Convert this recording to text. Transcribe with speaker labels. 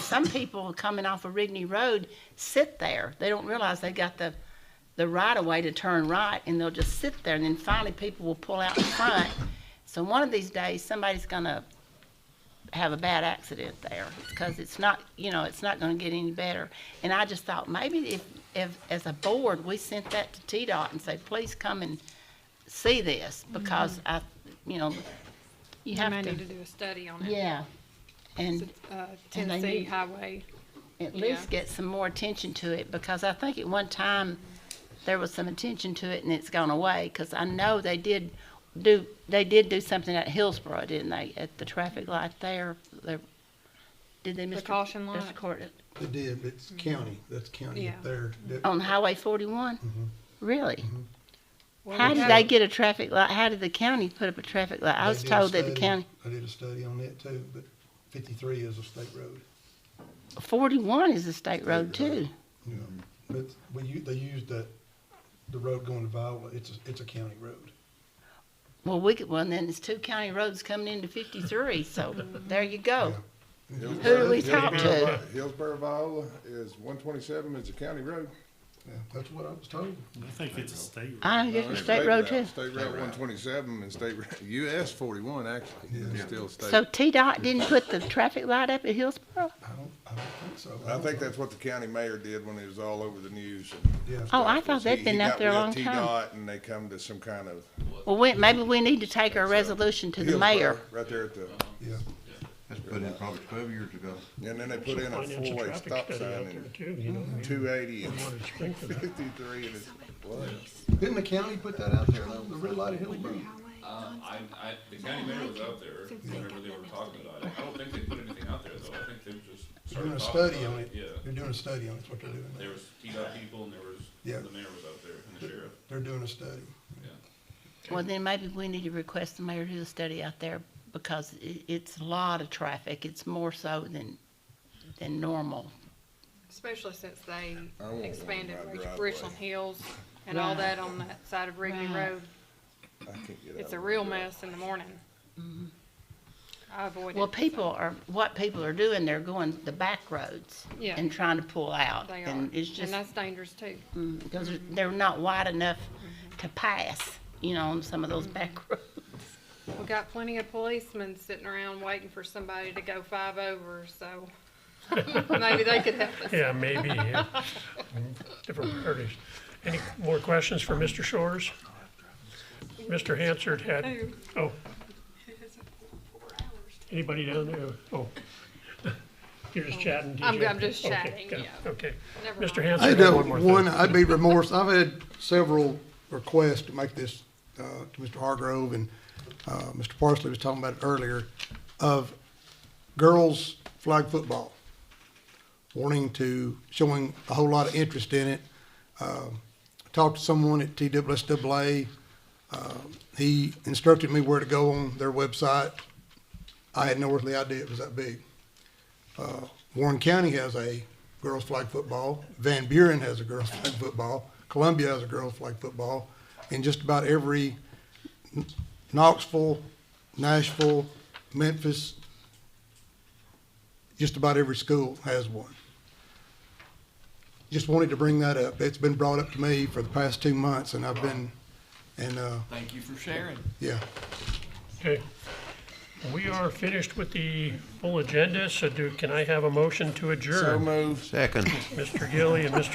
Speaker 1: some people coming off of Rigney Road sit there. They don't realize they got the, the right of way to turn right and they'll just sit there and then finally people will pull out in front. So one of these days, somebody's gonna have a bad accident there because it's not, you know, it's not gonna get any better. And I just thought maybe if, if, as a board, we sent that to TDOT and say, please come and see this because I, you know, you
Speaker 2: They
Speaker 1: have
Speaker 2: may
Speaker 1: to.
Speaker 2: need to do a study on it.
Speaker 1: Yeah, and
Speaker 2: Uh,
Speaker 1: And they
Speaker 2: Tennessee
Speaker 1: need-
Speaker 2: Highway.
Speaker 1: at
Speaker 2: yeah.
Speaker 1: least get some more attention to it, because I think at one time, there was some attention to it and it's gone away, because I know they did do, they did do something at Hillsborough, didn't they, at the traffic light there, there, did they, Mr.?
Speaker 2: caution
Speaker 1: Mr.
Speaker 2: light?
Speaker 1: Court,
Speaker 3: They did, but it's county, that's county
Speaker 2: Yeah.
Speaker 3: up there. That-
Speaker 1: On Highway forty-one?
Speaker 3: Mm-hmm.
Speaker 1: Really?
Speaker 2: Well,
Speaker 1: How
Speaker 2: we
Speaker 1: did
Speaker 2: have-
Speaker 1: they get a traffic light, how did the county put up a traffic light? I
Speaker 3: they
Speaker 1: was
Speaker 3: did a
Speaker 1: told that the
Speaker 3: study-
Speaker 1: county,
Speaker 3: I did a study on that too, but fifty-three is a state road,
Speaker 1: forty-one is a state road
Speaker 3: State road.
Speaker 1: too.
Speaker 3: you know. But we, u- they used that, the road going to Viola, it's, a- it's a county road.
Speaker 1: Well, we could, well, then it's two county roads coming into fifty-three, so there you go. Who do we talk to?
Speaker 4: Hillsborough, Viola is one twenty-seven, it's a county road.
Speaker 3: Yeah, That's what I was told.
Speaker 5: I think it's a state.
Speaker 1: I don't
Speaker 4: No,
Speaker 1: get the
Speaker 4: it's
Speaker 1: state road too.
Speaker 4: route. State Route one twenty-seven and state, route- US forty-one actually, it's still
Speaker 1: So
Speaker 4: state.
Speaker 1: T-Dot didn't put the traffic light up at Hillsborough?
Speaker 3: I don't, I don't think so.
Speaker 4: I think that's what the county mayor did when it was all over the news.
Speaker 3: Yeah.
Speaker 1: Oh, I
Speaker 4: Stuff
Speaker 1: thought
Speaker 4: was
Speaker 1: they'd
Speaker 4: he-
Speaker 1: been
Speaker 4: he
Speaker 1: out
Speaker 4: got
Speaker 1: there a
Speaker 4: with
Speaker 1: long time.
Speaker 4: TDOT And they come to some kind of.
Speaker 1: Well, we, maybe we need to take our resolution to the mayor.
Speaker 4: Hillsborough, Right there at the,
Speaker 3: Yeah,
Speaker 6: That's put in probably twelve years ago.
Speaker 4: and then they put in a
Speaker 7: Financial
Speaker 4: four-way
Speaker 7: traffic
Speaker 4: stop
Speaker 7: study out
Speaker 4: sign
Speaker 7: there
Speaker 4: in
Speaker 7: too, you know,
Speaker 4: two eighty and
Speaker 7: I wanted to strengthen that.
Speaker 4: fifty-three and it's, what?
Speaker 3: didn't the county put that out there, though, the red light at Hillsborough?
Speaker 8: Um, I, I, the county mayor was out there whenever they were talking about it. I don't think they put anything out there though. I think they just
Speaker 3: They're
Speaker 8: started
Speaker 3: doing a
Speaker 8: talking about it.
Speaker 3: study on it.
Speaker 8: Yeah.
Speaker 3: They're doing a study on it, is what they're
Speaker 8: There
Speaker 3: doing.
Speaker 8: was T-Dot people and there was,
Speaker 3: Yeah.
Speaker 8: the mayor was out there and the sheriff,
Speaker 3: They're doing a study.
Speaker 8: yeah.
Speaker 1: Well, then maybe we need to request the mayor to do a study out there because i it's a lot of traffic. It's more so than, than normal.
Speaker 2: Especially since they
Speaker 4: I want one
Speaker 2: expanded
Speaker 4: right
Speaker 2: Rich-
Speaker 4: driveway.
Speaker 2: Richland Hills and all
Speaker 1: Right.
Speaker 2: that on that side of Rigney
Speaker 1: Right.
Speaker 2: Road.
Speaker 4: I can't get out
Speaker 2: It's
Speaker 4: of
Speaker 2: a
Speaker 4: it.
Speaker 2: real mess in the morning. I avoid it.
Speaker 1: Mm-hmm. Well, people are, what people are doing, they're going the back roads
Speaker 2: Yeah.
Speaker 1: and trying to pull out.
Speaker 2: They are.
Speaker 1: And it's
Speaker 2: And
Speaker 1: just,
Speaker 2: that's dangerous too.
Speaker 1: mm, because they're- they're not wide enough to pass, you know, on some of
Speaker 2: Mm-hmm.
Speaker 1: those back roads.
Speaker 2: We got plenty of policemen sitting around waiting for somebody to go five over, so maybe they could help us.
Speaker 7: Yeah, maybe, yeah. Different priorities. Any more questions for Mr. Shores? Mr. Hansard had,
Speaker 2: Who?
Speaker 7: oh. Anybody down there? Oh. You're just chatting, did
Speaker 2: Oh. I'm-
Speaker 7: you?
Speaker 2: I'm just
Speaker 7: Okay,
Speaker 2: chatting,
Speaker 7: go,
Speaker 2: yeah.
Speaker 7: Okay.
Speaker 2: Never
Speaker 7: Mr.
Speaker 2: mind.
Speaker 3: I
Speaker 7: Hansard
Speaker 3: had
Speaker 7: had
Speaker 3: uh,
Speaker 7: one more thing.
Speaker 3: one, I'd be remorse, I've had several requests to make this, uh, to Mr. Hargrove and, uh, Mr. Parsley was talking about it earlier, of girls flag football, wanting to, showing a whole lot of interest in it. Um, Talked to someone at TWSAA, um, he instructed me where to go on their website. I had no earthly idea it was that big. Warren County has a girls flag football. Van Buren has a girls flag football. Columbia has a girls flag football. And just about every Kn- Knoxville, Nashville, Memphis, just about every school has one. Just wanted to bring that up. It's been brought up to me for the past two months and I've been, and, uh,
Speaker 9: Thank you for sharing.
Speaker 3: yeah.
Speaker 7: Okay. We are finished with the full agenda, so do, can I have a motion to
Speaker 4: So
Speaker 7: adjourn?
Speaker 4: moved.
Speaker 6: Second.
Speaker 7: Mr. Gilly and Mr.